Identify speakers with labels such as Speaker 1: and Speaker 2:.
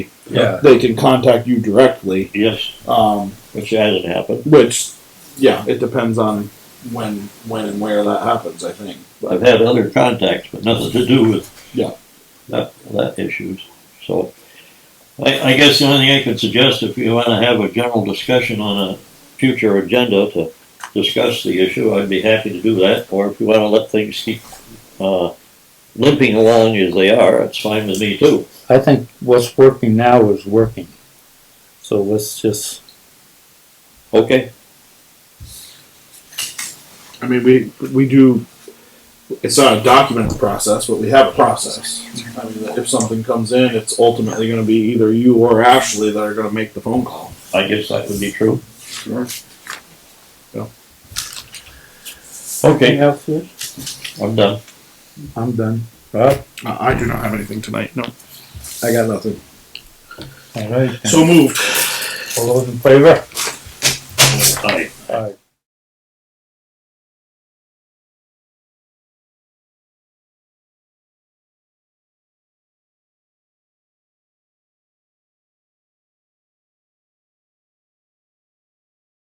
Speaker 1: Yeah.
Speaker 2: They can contact you directly,
Speaker 1: Yes,
Speaker 2: um,
Speaker 1: which hasn't happened.
Speaker 2: which, yeah, it depends on when, when and where that happens, I think. But,
Speaker 1: I've had other contacts, but nothing to do with
Speaker 2: Yeah.
Speaker 1: that, that issues. So I, I guess the only thing I could suggest, if you want to have a general discussion on a future agenda to discuss the issue, I'd be happy to do that. Or if you want to let things keep uh, limping along as they are, it's fine with me too.
Speaker 3: I think what's working now is working. So let's just,
Speaker 1: Okay,
Speaker 2: I mean, we, we do, it's not a documented process, but we have a process. I mean, if something comes in, it's ultimately gonna be either you or Ashley that are gonna make the phone call.
Speaker 1: I guess that would be true.
Speaker 2: Sure.
Speaker 1: Okay,
Speaker 3: anything else, Rich?
Speaker 1: I'm done.
Speaker 3: I'm done. Rob?
Speaker 2: I do not have anything tonight, no. I got nothing.
Speaker 3: All right. then.
Speaker 2: So moved.
Speaker 3: All those in favor?